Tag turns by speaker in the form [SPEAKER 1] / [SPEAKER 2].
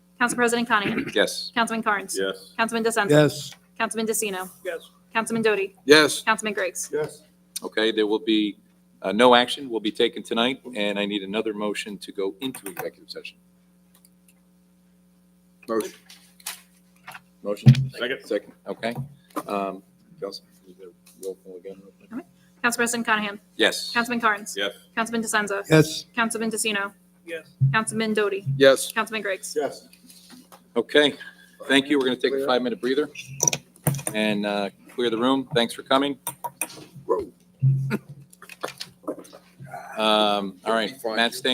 [SPEAKER 1] Council President Connie.
[SPEAKER 2] Yes.
[SPEAKER 1] Councilman Carnes.
[SPEAKER 3] Yes.
[SPEAKER 1] Councilman DeSenza.
[SPEAKER 4] Yes.
[SPEAKER 1] Councilman DeCino.
[SPEAKER 4] Yes.
[SPEAKER 1] Councilman Doty.
[SPEAKER 2] Yes.
[SPEAKER 1] Councilman Griggs.
[SPEAKER 4] Yes.
[SPEAKER 2] Okay, there will be, uh, no action will be taken tonight, and I need another motion to go into executive session.
[SPEAKER 5] Motion.
[SPEAKER 2] Motion?
[SPEAKER 3] Second.
[SPEAKER 2] Second, okay. Um, Kelsey, is there roll call again? real quick?
[SPEAKER 1] Council President Conahan.
[SPEAKER 2] Yes.
[SPEAKER 1] Councilman Carnes.
[SPEAKER 3] Yes.
[SPEAKER 1] Councilman DeSenza.
[SPEAKER 4] Yes.
[SPEAKER 1] Councilman DeCino.
[SPEAKER 4] Yes.
[SPEAKER 1] Councilman Doty.
[SPEAKER 5] Yes.
[SPEAKER 1] Councilman Griggs.
[SPEAKER 5] Yes.
[SPEAKER 2] Okay, thank you. We're going to take a five-minute breather and uh, clear the room. Thanks for coming. Um, All right, Matt Stain.